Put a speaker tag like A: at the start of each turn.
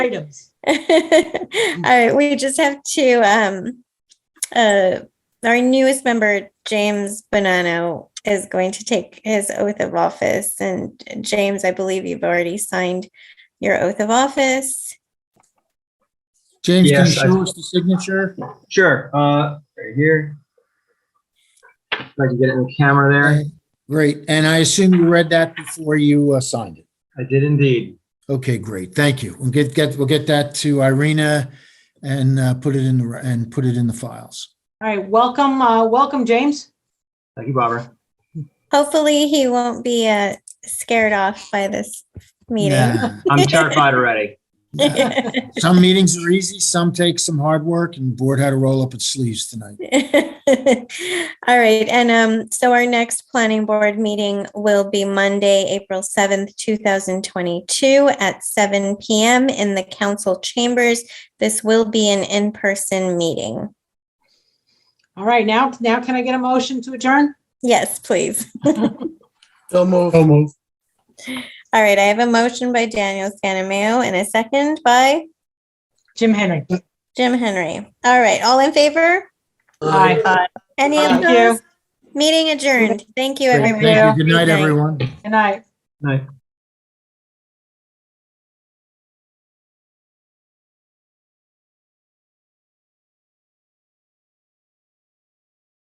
A: items.
B: All right, we just have to, um, uh, our newest member, James Bonanno, is going to take his oath of office. And James, I believe you've already signed your oath of office.
C: James, can you
D: Yes, I-
C: show us the signature?
D: Sure, uh, right here. If I can get it in the camera there.
C: Great. And I assume you read that before you uh, signed it.
D: I did indeed.
C: Okay, great. Thank you. We'll get, get, we'll get that to Irina and uh, put it in, the and put it in the files.
A: All right, welcome, uh, welcome, James.
D: Thank you, Barbara.
B: Hopefully, he won't be, uh, scared off by this meeting.
C: Yeah.
D: I'm terrified already.
C: Some meetings are easy, some take some hard work, and the board had to roll up its sleeves tonight.
B: All right, and um, so our next planning board meeting will be Monday, April seventh, two thousand twenty-two at seven PM in the council chambers. This will be an in-person meeting.
A: All right, now, now can I get a motion to adjourn?
B: Yes, please.
E: So move. So move.
B: All right, I have a motion by Daniel Scannamayo and a second by
A: Jim Henry.
B: Jim Henry. All right, all in favor?
A: Aye.
B: Any
A: Thank you.
B: opposed? Meeting adjourned. Thank you,
C: Great,
B: everyone.
C: Thank you. Good night,
B: Good night.
C: everyone.
A: Good night.
D: Night.